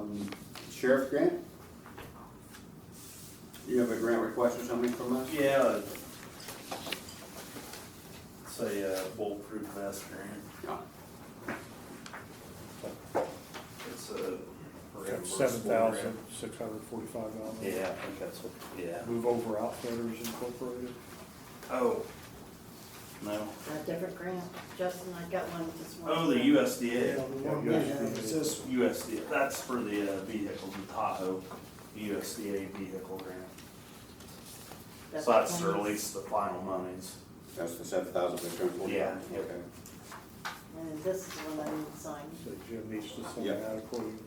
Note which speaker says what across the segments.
Speaker 1: Um, Sheriff Grant? You have a grant request or something from us?
Speaker 2: Yeah. uh, Say uh, bulletproof vest grant.
Speaker 1: No.
Speaker 2: It's uh, a.
Speaker 3: Seven thousand six hundred forty-five dollars.
Speaker 2: Yeah, I think that's what, yeah.
Speaker 3: Move over outfitters incorporated.
Speaker 2: Oh. No.
Speaker 4: A different grant, Justin, I got one this morning.
Speaker 2: Oh, the USDA.
Speaker 3: Is this
Speaker 2: USDA, that's for the uh, vehicles in Tahoe, USDA vehicle grant. So that's to
Speaker 4: the one
Speaker 2: release the final monies.
Speaker 1: That's the seven thousand we turned forty?
Speaker 2: Yeah, yeah.
Speaker 1: Okay.
Speaker 4: that's- And this is the one I need signed.
Speaker 3: So Jim needs to send
Speaker 1: Yeah.
Speaker 3: that according to,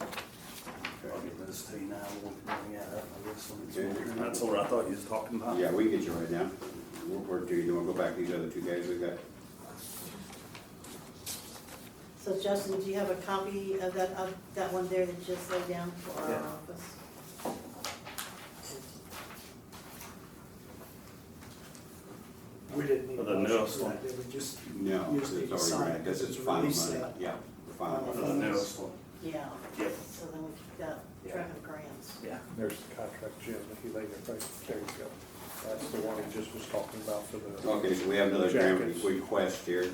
Speaker 2: I'll get
Speaker 1: Okay.
Speaker 2: those two now. We'll bring that up. I guess, when it's-
Speaker 1: Okay.
Speaker 2: That's what I thought you was talking about.
Speaker 1: Yeah, we can get you right now. We'll work to you, then we'll go back to these other two guys we got.
Speaker 4: So Justin, do you have a copy of that, of that one there that you just laid down for our
Speaker 2: Yeah.
Speaker 4: office?
Speaker 5: We didn't need a
Speaker 2: For the
Speaker 5: motion
Speaker 2: newest
Speaker 5: for
Speaker 2: one.
Speaker 5: that, did we just,
Speaker 1: No,
Speaker 5: You
Speaker 1: it's
Speaker 5: just need to
Speaker 1: already
Speaker 5: sign
Speaker 1: ready,
Speaker 5: it,
Speaker 1: this
Speaker 5: because
Speaker 1: is
Speaker 5: it's
Speaker 1: final
Speaker 5: release
Speaker 1: money.
Speaker 5: that. Uh,
Speaker 1: Yeah, the final
Speaker 2: For
Speaker 1: money.
Speaker 2: the newest Uh, one.
Speaker 4: Yeah.
Speaker 2: Yep.
Speaker 4: So then we keep that track of grants.
Speaker 2: Yeah.
Speaker 3: there's the contract, Jim, if you lay it right, there you go. That's the one he just was talking about for the.
Speaker 1: Okay, so we have another grant
Speaker 3: Jackets.
Speaker 1: request here.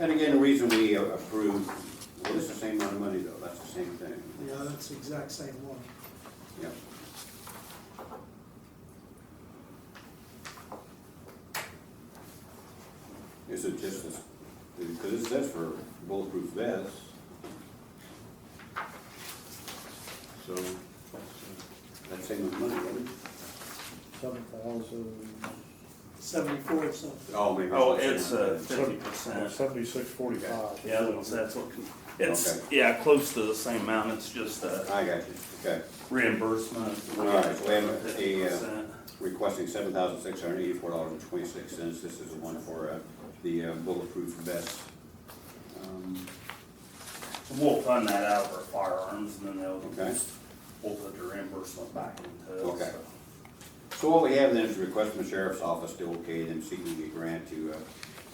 Speaker 1: And again, the reason we approved, well, it's the same amount of money though, that's the same thing.
Speaker 5: yeah, that's the exact same one.
Speaker 1: Yeah. Is it just, because it says for bulletproof vests. So, that's same with money, right?
Speaker 3: Seven thousand,
Speaker 5: Seventy-four or something.
Speaker 1: Oh, maybe. I
Speaker 2: Oh,
Speaker 1: should-
Speaker 2: it's uh, fifty percent.
Speaker 3: seventy-six forty-five.
Speaker 2: Yeah, that's- that's what, it's,
Speaker 1: Okay.
Speaker 2: yeah, close to the same amount, it's just a
Speaker 1: I got you, okay.
Speaker 2: reimbursement.
Speaker 1: Alright, so we have a-
Speaker 2: Fifty
Speaker 1: a, uh,
Speaker 2: percent.
Speaker 1: requesting seven thousand six hundred eighty-four dollars and twenty-six cents. This is the one for uh, the uh, bulletproof vest. Um,
Speaker 2: We'll fund that out of our firearms and then
Speaker 1: Okay.
Speaker 2: they'll, we'll put the reimbursement back into it.
Speaker 1: Okay.
Speaker 2: so.
Speaker 1: So what we have then is a request from the sheriff's office to okay them seeking a grant to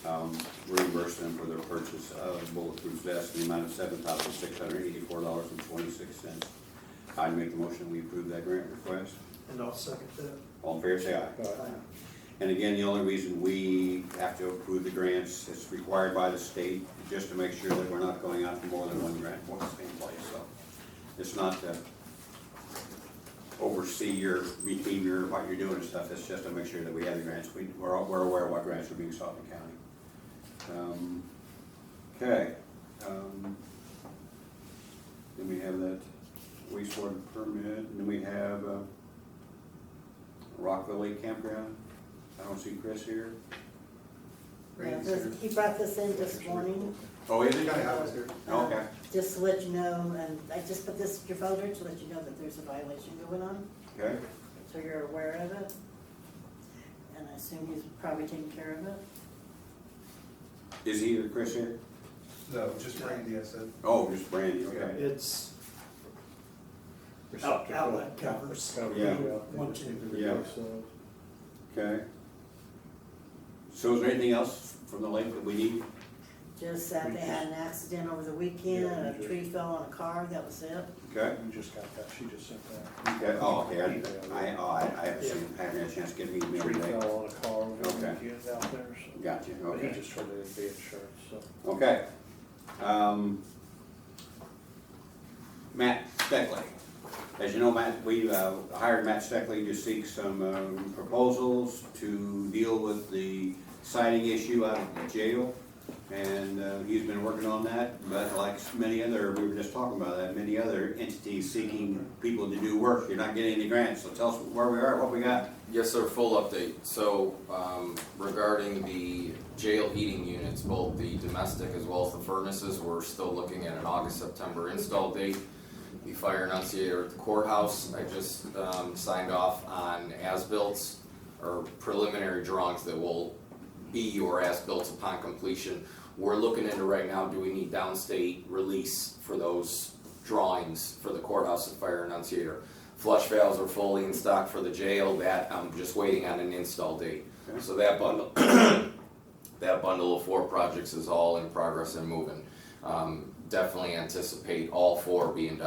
Speaker 1: uh, um, reimburse them for their purchase of bulletproof vests in the amount of seven thousand six hundred eighty-four dollars and twenty-six cents. I'd make the motion, we approve that grant request.
Speaker 5: And I'll second that.
Speaker 1: All in favor, say aye. And again, the only reason we have to approve the grants is required by the state, just to make sure that we're not going out for more than one grant for the same place, so. It's not to oversee your, between your, what you're doing and stuff, it's just to make sure that we have the grants, we, we're, all- we're aware of what grants are being sought in the county. Um, Okay, um, then we have that wastewater permit, and then we have, uh, Rockville Lake Campground. I don't see Chris here.
Speaker 4: Yeah, this- He brought this in this morning,
Speaker 1: Oh, is he Okay,
Speaker 4: Okay. just to let you know, and I just put this in your folder to let you know that there's a violation going on.
Speaker 1: okay.
Speaker 4: So you're aware of it? And I assume he's probably taking care of it?
Speaker 1: Is he or Chris here?
Speaker 6: No, just Randy, I said.
Speaker 1: Oh, just Brandy, okay.
Speaker 5: It's out-
Speaker 3: Receptacle.
Speaker 5: outlet covers.
Speaker 3: Cover,
Speaker 1: Yeah.
Speaker 5: One, two.
Speaker 1: Yeah.
Speaker 3: So,
Speaker 1: Okay. So is there anything else from the lake that we need?
Speaker 4: Just that they had an accident over the weekend,
Speaker 3: Yeah,
Speaker 4: a tree fell on a car, that was it.
Speaker 1: Okay.
Speaker 3: You just got that, she just sent that.
Speaker 1: Okay, oh, okay, I, I, oh, I I haven't seen, I haven't had a chance to get an email
Speaker 3: Tree
Speaker 1: today.
Speaker 3: fell on a car over the
Speaker 1: Okay.
Speaker 3: weekend out there, so.
Speaker 1: Gotcha,
Speaker 3: But he
Speaker 1: okay,
Speaker 3: just turned it into insurance, so.
Speaker 1: okay. Um, Matt Steckley. As you know, Matt, we uh, hired Matt Steckley to seek some um, proposals to deal with the siding issue out of the jail. And uh, he's been working on that, but like many other, we were just talking about that, many other entities seeking people to do work. You're not getting any grants, so tell us where we are, what we got.
Speaker 7: Yes, sir, full update. So um, regarding the jail heating units, both the domestic as well as the furnaces, we're still looking at an August, September install date. The fire enunciator at the courthouse, I just um, signed off on as-bills or preliminary drawings that will be your as-bills upon completion. We're looking into right now, do we need downstate release for those drawings for the courthouse and fire enunciator? Flush valves are fully in stock for the jail, that I'm just waiting on an install date. So that bundle, that bundle of four projects is all in progress and moving. Um, Definitely anticipate all four being done